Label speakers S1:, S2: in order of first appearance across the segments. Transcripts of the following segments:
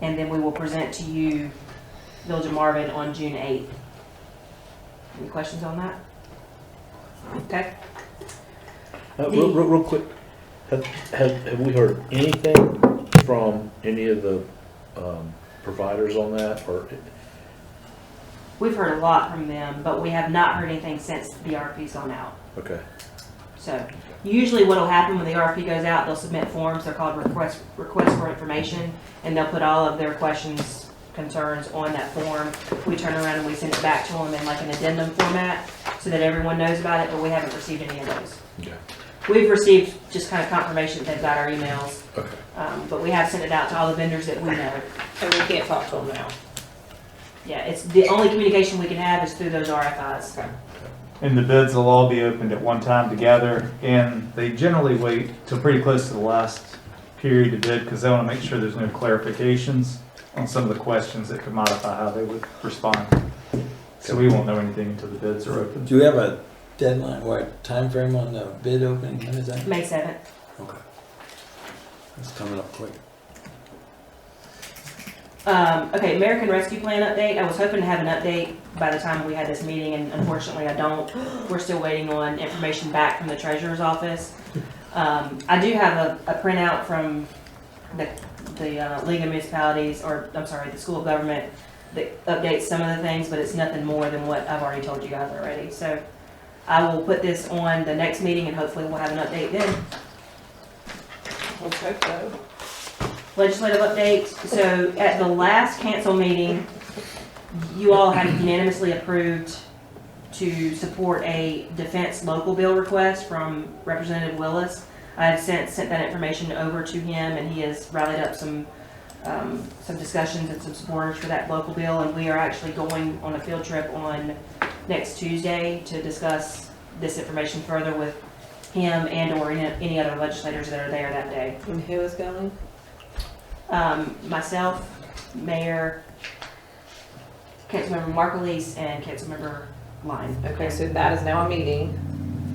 S1: And then we will present to you Village of Marvin on June 8th. Any questions on that? Okay,
S2: Uh, real, real, real quick, have, have, have we heard anything from any of the, um, providers on that, or,
S1: we've heard a lot from them, but we have not heard anything since the RFP's gone out.
S2: okay,
S1: So usually what'll happen when the RFP goes out, they'll submit forms, they're called request, request for information, and they'll put all of their questions, concerns on that form. We turn around and we send it back to them in like an addendum format, so that everyone knows about it, but we haven't received any of those.
S2: yeah,
S1: We've received just kind of confirmation that they've got our emails,
S2: okay.
S1: um, but we have sent it out to all the vendors that we know.
S3: And we can't talk to them now.
S1: Yeah, it's, the only communication we can have is through those RFIs.
S4: And the bids will all be opened at one time together, and they generally wait till pretty close to the last period to bid, because they want to make sure there's no clarifications on some of the questions that could modify how they would respond. So we won't know anything until the bids are open.
S5: Do we have a deadline, what, time frame on the bid opening, when is that?
S1: May seventh.
S5: Okay. It's coming up quick.
S1: Um, okay, American Rescue Plan update. I was hoping to have an update by the time we had this meeting, and unfortunately I don't. We're still waiting on information back from the treasurer's office. Um, I do have a, a printout from the, the uh, League of Municipalities, or, I'm sorry, the School of Government that updates some of the things, but it's nothing more than what I've already told you guys already. So I will put this on the next meeting, and hopefully we'll have an update then.
S3: Let's hope so.
S1: legislative updates. So at the last council meeting, you all had unanimously approved to support a defense local bill request from Representative Willis. I have sent, sent that information over to him and he has rallied up some, um, some discussions and some supporters for that local bill. And we are actually going on a field trip on next Tuesday to discuss this information further with him and or any any other legislators that are there that day
S3: And who is going?
S1: um, myself, Mayor, Councilmember Markleese, and Councilmember Line.
S3: Okay, so that is now a meeting.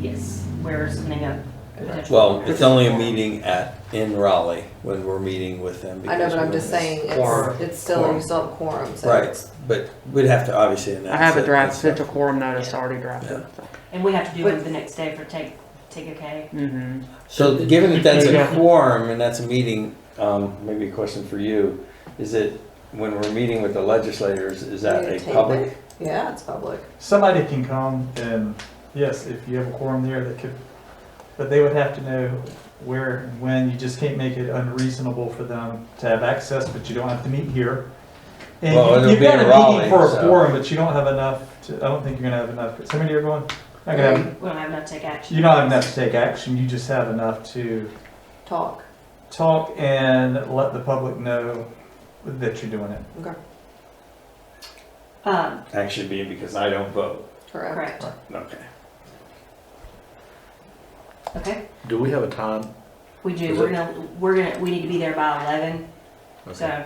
S1: Yes, we're submitting a potential.
S5: Well, it's only a meeting at, in Raleigh, when we're meeting with them.
S3: I know,
S5: because
S3: but I'm
S5: we're-
S3: just saying,
S5: Quorum.
S3: it's, it's still, you still have quorum, so.
S5: Right, but we'd have to obviously announce.
S6: I have
S5: it
S6: a
S5: and
S6: draft
S5: stuff.
S6: central quorum notice already drafted.
S1: And we have to do it the next day for take, take a K.
S6: Mm-hmm.
S5: So given that that's a
S6: Yeah.
S5: quorum and that's a meeting, um, maybe a question for you, is it, when we're meeting with the legislators, is that a
S3: Tape
S5: public?
S3: it. Yeah, it's public.
S4: Somebody can come and, yes, if you have a quorum there, that could, but they would have to know where and when. You just can't make it unreasonable for them to have access, but you don't have to meet here. And
S5: Well,
S4: you-
S5: it'll
S4: you've
S5: be
S4: got
S5: in
S4: a meeting
S5: Raleigh,
S4: for a
S5: so-
S4: quorum, but you don't have enough to, I don't think you're gonna have enough. How many are going? Not gonna have,
S1: We don't have enough to take action.
S4: you don't have enough to take action. You just have enough to
S3: Talk.
S4: talk and let the public know that you're doing it.
S3: Okay,
S1: Um,
S5: That should be because I don't vote.
S3: correct.
S1: correct,
S5: Okay.
S1: okay?
S2: Do we have a time?
S1: We do,
S2: Is
S1: we're
S2: it-
S1: gonna, we're gonna, we need to be there by eleven,
S2: Okay.
S1: so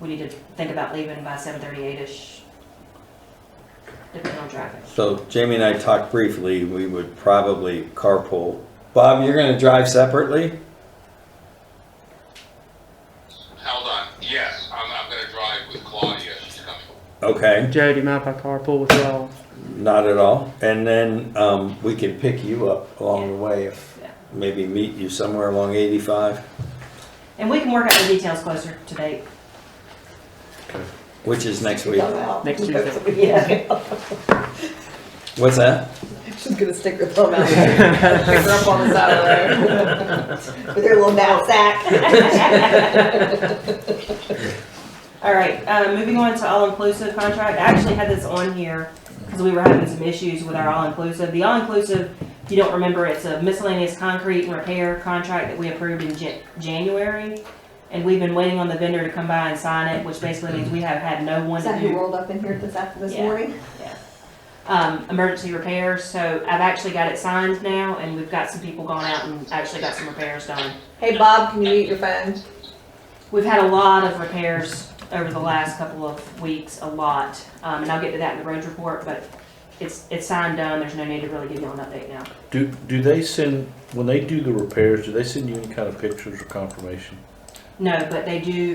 S1: we need to think about leaving by seven thirty-eight-ish, depending on traffic.
S5: So Jamie and I talked briefly, we would probably carpool. Bob, you're gonna drive separately?
S7: Hold on. Yes, I'm, I'm going to drive with Claudia. She's coming.
S5: Okay,
S6: Joe, do you mind if I carpool with y'all?
S5: not at all. And then, um, we can pick you up along the way if,
S1: Yeah.
S5: maybe meet you somewhere along eighty-five,
S1: And we can work out the details closer to date.
S5: which is next week.
S6: Next
S3: Tuesday. Yeah.
S5: What's that?
S3: She's gonna stick her thumb out. Pick her up on the side of the road. With her little knapsack.
S1: All right, uh, moving on to all-inclusive contract. I actually had this on here because we were having some issues with our all-inclusive. The all-inclusive, if you don't remember, it's a miscellaneous concrete and repair contract that we approved in Ja- January. And we've been waiting on the vendor to come by and sign it, which basically means we have had no one
S8: Is
S1: to
S8: that who
S1: do
S8: rolled up in here this after this
S1: Yeah.
S8: morning?
S1: um, emergency repairs. So I've actually got it signed now and we've got some people going out and actually got some repairs done.
S3: Hey, Bob, can you mute your phone?
S1: We've had a lot of repairs over the last couple of weeks, a lot, um, and I'll get to that in the roads report, but it's, it's signed done, there's no need to really give you an update now.
S2: Do, do they send, when they do the repairs, do they send you any kind of pictures or confirmation?
S1: No, but they do,